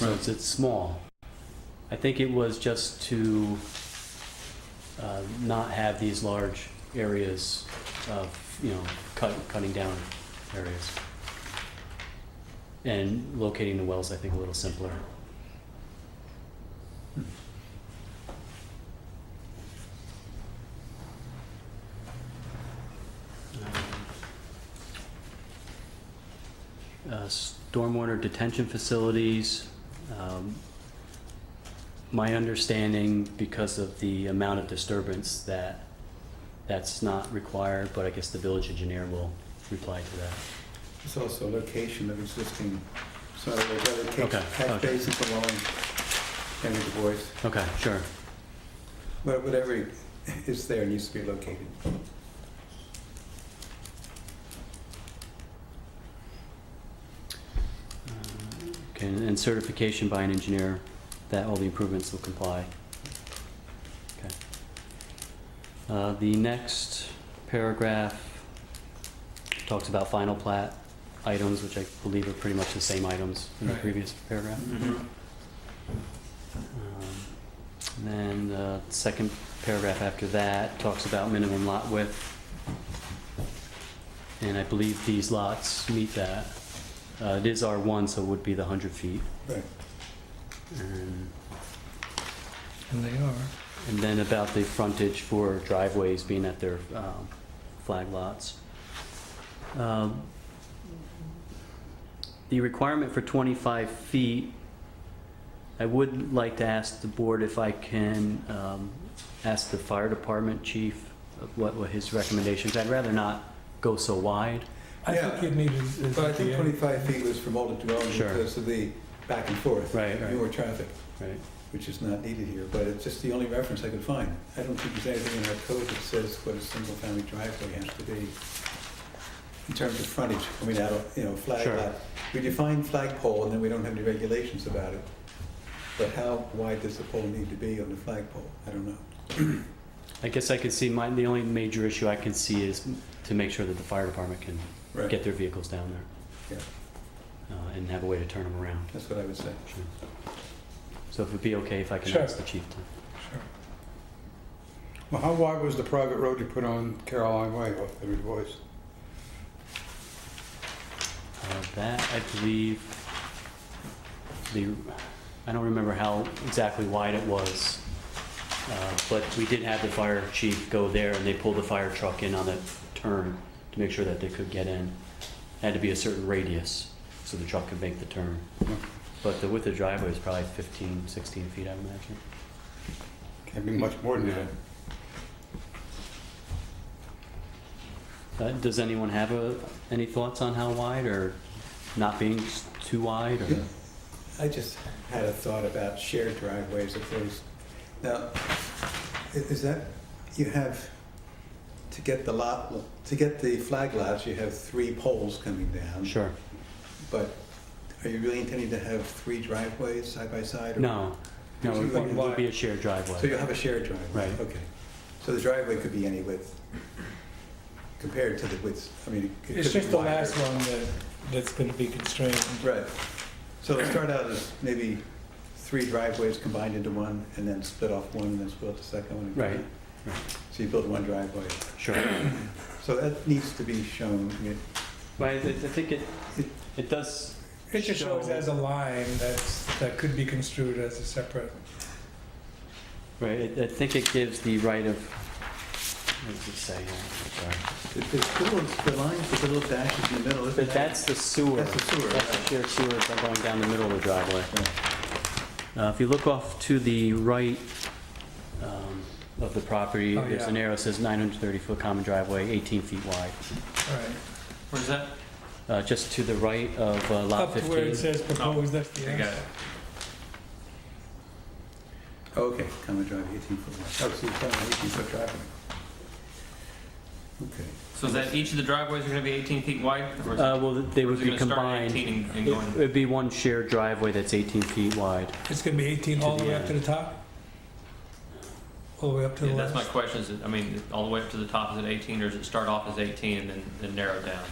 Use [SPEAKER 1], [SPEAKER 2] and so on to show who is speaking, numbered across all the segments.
[SPEAKER 1] roads, it's small. I think it was just to uh, not have these large areas of, you know, cut, cutting down areas. And locating the wells, I think, a little simpler. Hmm. Uh, Stormwater detention facilities, um, my understanding, because of the amount of disturbance, that that's not required, but I guess the village engineer will reply to that.
[SPEAKER 2] It's also location of existing, so they've got a
[SPEAKER 1] Okay,
[SPEAKER 2] catch- catch
[SPEAKER 1] okay.
[SPEAKER 2] basin along Henry DuBois.
[SPEAKER 1] Okay, sure.
[SPEAKER 2] But Whatever is there needs to be located.
[SPEAKER 1] Uh, Okay, and certification by an engineer that all the improvements will comply. Okay. Uh, The next paragraph talks about final plat items, which I believe are pretty much the same items in the
[SPEAKER 2] Right.
[SPEAKER 1] previous paragraph. Um, And then the second paragraph after that talks about minimum lot width. And I believe these lots meet that. Uh, It is R1, so it would be the 100 feet.
[SPEAKER 2] Right.
[SPEAKER 1] And
[SPEAKER 3] And they are.
[SPEAKER 1] and then about the frontage for driveways being at their um, flag lots. Um, The requirement for 25 feet, I would like to ask the board if I can um, ask the fire department chief of what were his recommendations. I'd rather not go so wide.
[SPEAKER 3] I
[SPEAKER 2] Yeah.
[SPEAKER 3] think you'd need is, is
[SPEAKER 2] But I
[SPEAKER 3] at the
[SPEAKER 2] think
[SPEAKER 3] end.
[SPEAKER 2] 25 feet was from older development
[SPEAKER 1] Sure.
[SPEAKER 2] because of the back and forth.
[SPEAKER 1] Right, right.
[SPEAKER 2] Newer traffic,
[SPEAKER 1] Right.
[SPEAKER 2] which is not needed here, but it's just the only reference I could find. I don't think there's anything in our code that says what a single-family driveway has to be in terms of frontage. I mean, I don't, you know, flag
[SPEAKER 1] Sure.
[SPEAKER 2] lot. We define flagpole and then we don't have any regulations about it. But how wide does the pole need to be on the flagpole? I don't know.
[SPEAKER 1] I guess I could see, my, the only major issue I can see is to make sure that the fire department can
[SPEAKER 2] Right.
[SPEAKER 1] get their vehicles down there. Uh, And have a way to turn them around.
[SPEAKER 2] That's what I would say.
[SPEAKER 1] Sure. So if it'd be okay if I can
[SPEAKER 4] Sure.
[SPEAKER 1] ask the chief to,
[SPEAKER 4] Well, how wide was the private road you put on Caroline Way off Henry DuBois?
[SPEAKER 1] uh, that I believe, the, I don't remember how exactly wide it was. uh, But we did have the fire chief go there and they pulled the fire truck in on a turn to make sure that they could get in. Had to be a certain radius so the truck could make the turn. But the width of the driveway is probably 15, 16 feet, I imagine.
[SPEAKER 4] Can't be much more than that.
[SPEAKER 1] Uh, Does anyone have a, any thoughts on how wide or not being s- too wide or?
[SPEAKER 2] I just had a thought about shared driveways if there's, now, i- is that, you have, to get the lot, to get the flag lots, you have three poles coming down.
[SPEAKER 1] Sure.
[SPEAKER 2] But are you really intending to have three driveways side by side? or-
[SPEAKER 1] No, no, it would- it would be a shared
[SPEAKER 2] So you'll
[SPEAKER 1] driveway.
[SPEAKER 2] have a shared driveway?
[SPEAKER 1] Right.
[SPEAKER 2] Okay. So the driveway could be any width compared to the width, I mean. it could
[SPEAKER 3] It's
[SPEAKER 2] be
[SPEAKER 3] just the
[SPEAKER 2] wider.
[SPEAKER 3] last one that, that's gonna be constrained.
[SPEAKER 2] Right. So it'll start out as maybe three driveways combined into one, and then split off one, and then split the second one. again.
[SPEAKER 1] Right,
[SPEAKER 2] So you build one driveway.
[SPEAKER 1] Sure.
[SPEAKER 2] So that needs to be shown. I mean,
[SPEAKER 1] But I, I think it, it does,
[SPEAKER 3] It just
[SPEAKER 1] So-
[SPEAKER 3] shows as a line that's, that could be construed as a separate.
[SPEAKER 1] right, I I think it gives the right of, what does it say? here? Sorry.
[SPEAKER 2] it- There's little, the lines, with the little dashes in the middle, isn't
[SPEAKER 1] But
[SPEAKER 2] that?
[SPEAKER 1] that's the sewer.
[SPEAKER 2] That's the sewer,
[SPEAKER 1] That's the
[SPEAKER 2] right.
[SPEAKER 1] shared sewer by going down the middle of the driveway. Uh, if you look off to the right, um, of the property,
[SPEAKER 3] Oh,
[SPEAKER 1] there's
[SPEAKER 3] yeah.
[SPEAKER 1] an arrow that says nine hundred thirty foot common driveway, eighteen feet wide.
[SPEAKER 3] All right.
[SPEAKER 5] Where's that?
[SPEAKER 1] Uh, just to the right of uh, lot
[SPEAKER 3] Up to where it
[SPEAKER 1] fifteen.
[SPEAKER 3] says proposed
[SPEAKER 5] I got
[SPEAKER 3] FDS.
[SPEAKER 5] it.
[SPEAKER 2] Okay, common driveway, 18 foot wide. Oh, so you're talking about 18 foot driveway. Okay.
[SPEAKER 5] So is that each of the driveways are gonna be 18 feet wide? or is it-
[SPEAKER 1] Uh, well, they
[SPEAKER 5] or
[SPEAKER 1] would
[SPEAKER 5] is it
[SPEAKER 1] be
[SPEAKER 5] gonna start at
[SPEAKER 1] combined.
[SPEAKER 5] 18 and- and
[SPEAKER 1] It-
[SPEAKER 5] going,
[SPEAKER 1] It'd be one shared driveway that's 18 feet wide.
[SPEAKER 3] It's gonna be eighteen
[SPEAKER 1] To
[SPEAKER 3] all the
[SPEAKER 1] the
[SPEAKER 3] way up to
[SPEAKER 1] end.
[SPEAKER 3] the top? All the way up to the
[SPEAKER 5] yeah, that's my
[SPEAKER 3] last?
[SPEAKER 5] question, is it, I mean, is it all the way up to the top, is it 18, or does it start off as 18 and then, then narrow down?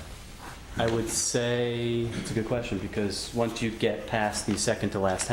[SPEAKER 1] I would say, it's a good question, because once you get past the second to last